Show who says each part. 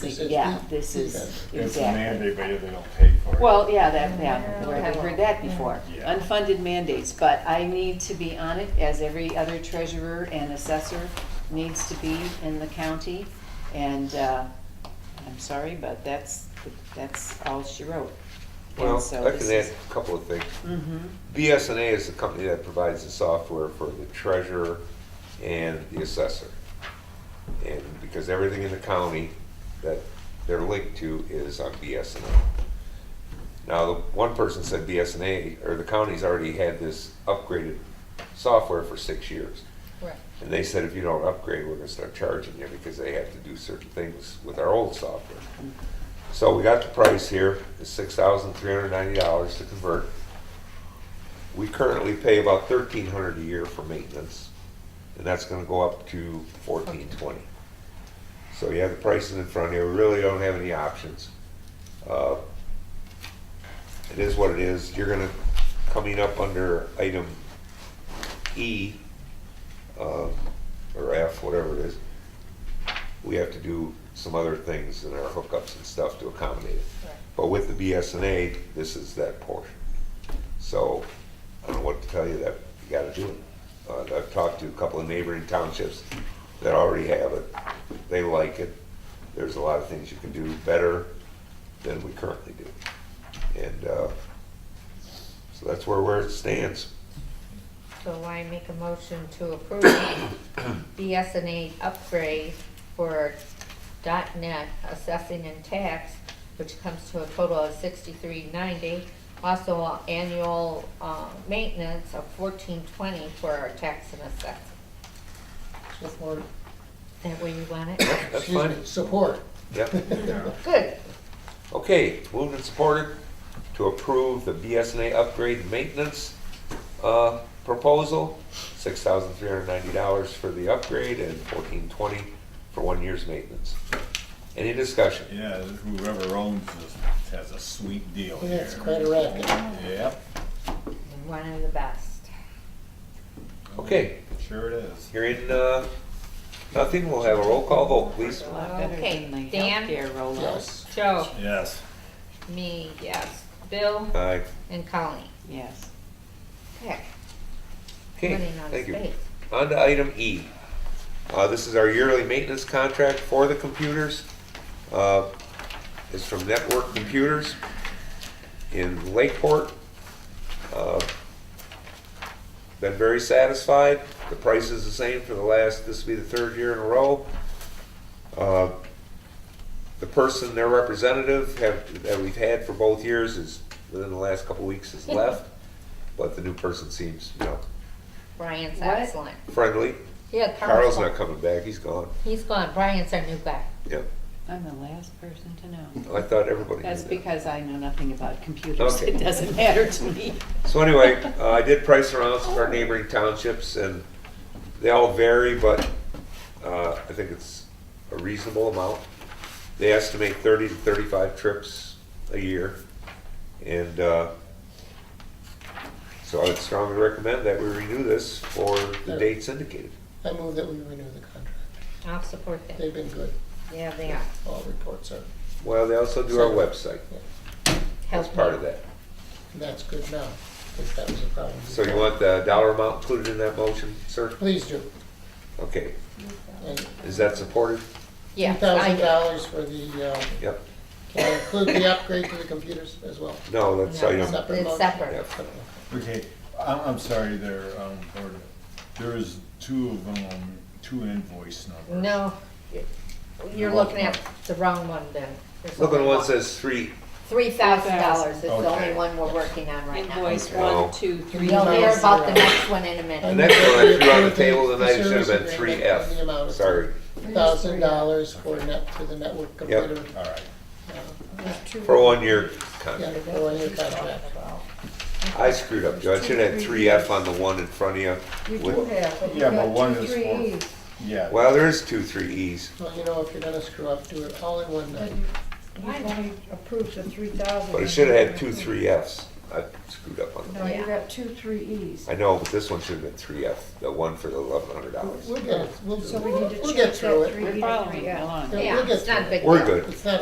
Speaker 1: This is
Speaker 2: Yeah,
Speaker 1: now.
Speaker 2: this is,
Speaker 1: Okay.
Speaker 3: It's a
Speaker 2: exactly.
Speaker 3: mandate, but yet they don't pay for it.
Speaker 2: Well, yeah, that, yeah, we
Speaker 4: Yeah.
Speaker 2: have heard that before.
Speaker 3: Yeah.
Speaker 2: Unfunded mandates, but I need to be on it as every other treasurer and assessor needs to be in the county. And, uh, I'm sorry, but that's, that's all she wrote. And
Speaker 5: Well,
Speaker 2: so
Speaker 5: I
Speaker 2: this
Speaker 5: can
Speaker 2: is-
Speaker 5: add a couple of things.
Speaker 2: Mhm.
Speaker 5: BSNA is the company that provides the software for the treasurer and the assessor. And because everything in the county that they're linked to is on BSNA. Now, the one person said BSNA, or the county's already had this upgraded software for six years.
Speaker 4: Right.
Speaker 5: And they said, if you don't upgrade, we're gonna start charging you because they have to do certain things with our old software. So we got the price here, it's six thousand three hundred ninety dollars to convert. We currently pay about thirteen hundred a year for maintenance, and that's gonna go up to fourteen twenty. So you have the prices in front of you, we really don't have any options. Uh, It is what it is, you're gonna, coming up under item E, uh, or F, whatever it is, we have to do some other things in our hookups and stuff to accommodate it.
Speaker 4: Right.
Speaker 5: But with the BSNA, this is that portion. So, I don't know what to tell you that, you gotta do it. Uh, I've talked to a couple of neighboring townships that already have it, they like it. There's a lot of things you can do better than we currently do. And, uh, so that's where, where it stands.
Speaker 4: So I make a motion to approve BSNA upgrade for .NET assessing and tax, which comes to a total of sixty-three ninety. Also, annual, uh, maintenance of fourteen twenty for our tax and assessing.
Speaker 1: Support.
Speaker 4: Is that where you want it?
Speaker 5: That's
Speaker 1: Excuse
Speaker 5: fine,
Speaker 1: me, Support.
Speaker 5: yep.
Speaker 3: Yeah.
Speaker 4: Good.
Speaker 5: Okay, moved and supported to approve the BSNA upgrade maintenance uh, proposal, six thousand three hundred ninety dollars for the upgrade and fourteen twenty for one year's maintenance. Any discussion?
Speaker 3: Yeah, whoever owns this has a sweet deal
Speaker 1: Yeah,
Speaker 3: here.
Speaker 1: it's quite a racket.
Speaker 3: Yep,
Speaker 4: One of the best.
Speaker 5: Okay,
Speaker 3: sure it is.
Speaker 5: hearing uh, nothing, we'll have a roll call vote, please.
Speaker 2: A lot better
Speaker 4: Okay,
Speaker 2: than the
Speaker 4: Dan?
Speaker 2: healthcare rollout.
Speaker 1: Yes.
Speaker 4: Joe,
Speaker 3: Yes,
Speaker 4: me, yes. Bill
Speaker 5: Aye.
Speaker 4: and Colleen.
Speaker 2: Yes.
Speaker 4: Heck,
Speaker 5: Okay,
Speaker 4: running out of
Speaker 5: thank you.
Speaker 4: space.
Speaker 5: On to item E. Uh, This is our yearly maintenance contract for the computers. Uh, It's from Network Computers in Lakeport. Uh, Been very satisfied. The price is the same for the last, this will be the third year in a row. Uh, The person, their representative, have- that we've had for both years is, within the last couple weeks, has left. But the new person seems, you know,
Speaker 4: Brian's
Speaker 2: What?
Speaker 4: excellent.
Speaker 5: friendly.
Speaker 4: Yeah,
Speaker 5: Carl's
Speaker 4: Carl's
Speaker 5: not
Speaker 4: gone.
Speaker 5: coming back, he's gone.
Speaker 4: He's gone. Brian's our new guy.
Speaker 5: Yep,
Speaker 2: I'm the last person to know.
Speaker 5: I thought everybody
Speaker 2: That's
Speaker 5: knew that.
Speaker 2: because I know nothing about computers.
Speaker 5: Okay.
Speaker 2: It doesn't matter to me.
Speaker 5: So anyway, uh, I did price around some of our neighboring townships, and they all vary, but uh, I think it's a reasonable amount. They estimate 30 to 35 trips a year, and uh, so I would strongly recommend that we renew this for the
Speaker 1: Yeah.
Speaker 5: dates indicated.
Speaker 1: I move that we renew the contract.
Speaker 4: I'll support that.
Speaker 1: They've been good.
Speaker 4: Yeah, they are.
Speaker 1: All reports are,
Speaker 5: Well, they also do our website,
Speaker 4: Help
Speaker 5: that's part
Speaker 4: me.
Speaker 5: of that.
Speaker 1: and that's good now, because that was a problem.
Speaker 5: So you want the dollar amount included in that motion, sir?
Speaker 1: Please do.
Speaker 5: Okay,
Speaker 1: And
Speaker 5: is that supported?
Speaker 4: Yeah, I
Speaker 1: thousand
Speaker 4: do.
Speaker 1: dollars for the, uh,
Speaker 5: Yep.
Speaker 1: can I include the upgrade to the computers as well?
Speaker 5: No, that's
Speaker 4: No.
Speaker 5: item,
Speaker 1: Separate
Speaker 4: It's
Speaker 1: motion?
Speaker 4: separate.
Speaker 5: Yep.
Speaker 3: okay, I'm, I'm sorry there, um, Board. there is two of them, two invoice numbers.
Speaker 4: No, you're
Speaker 3: You're
Speaker 4: looking at
Speaker 3: welcome.
Speaker 4: the wrong one then. There's
Speaker 5: look at
Speaker 4: only
Speaker 5: one says three,
Speaker 4: Three thousand dollars is the
Speaker 3: Okay.
Speaker 4: only one we're working on right now.
Speaker 2: Invoice one, two, three.
Speaker 4: You'll hear about the
Speaker 1: Yeah.
Speaker 4: next one in a
Speaker 5: the
Speaker 1: And
Speaker 4: minute.
Speaker 5: next one I threw on the
Speaker 1: Approve the-
Speaker 5: table tonight, it
Speaker 1: the
Speaker 5: should have been
Speaker 1: service
Speaker 5: three
Speaker 1: agreement and the amount
Speaker 5: F,
Speaker 1: of-
Speaker 5: sorry.
Speaker 1: Thousand dollars for net, to the network computer.
Speaker 3: All right,
Speaker 5: For one year
Speaker 1: Yeah,
Speaker 5: contract.
Speaker 1: for one year contract.
Speaker 5: I screwed up, Joe, I should have had three F on the one in front of you. with-
Speaker 3: yeah, but one is for, yeah.
Speaker 5: Well, there is two, three E's,
Speaker 1: Well, you know, if you're gonna screw up, do it all in one night.
Speaker 6: We've only approved the three thousand.
Speaker 5: but it should have had two, three Fs. I screwed up on the
Speaker 6: No,
Speaker 5: name.
Speaker 6: you got two, three E's.
Speaker 5: I know, but this one should have been three F, the one for the eleven hundred dollars.
Speaker 1: We'll get, we'll,
Speaker 6: So we need to
Speaker 1: we'll get
Speaker 6: change
Speaker 1: through
Speaker 6: that
Speaker 1: it.
Speaker 6: three E
Speaker 2: We're
Speaker 6: to three
Speaker 2: following
Speaker 6: F.
Speaker 2: along.
Speaker 1: Yeah, we'll
Speaker 4: Yeah,
Speaker 1: get
Speaker 4: it's not a
Speaker 1: to
Speaker 4: big deal.
Speaker 5: We're good.
Speaker 1: It's not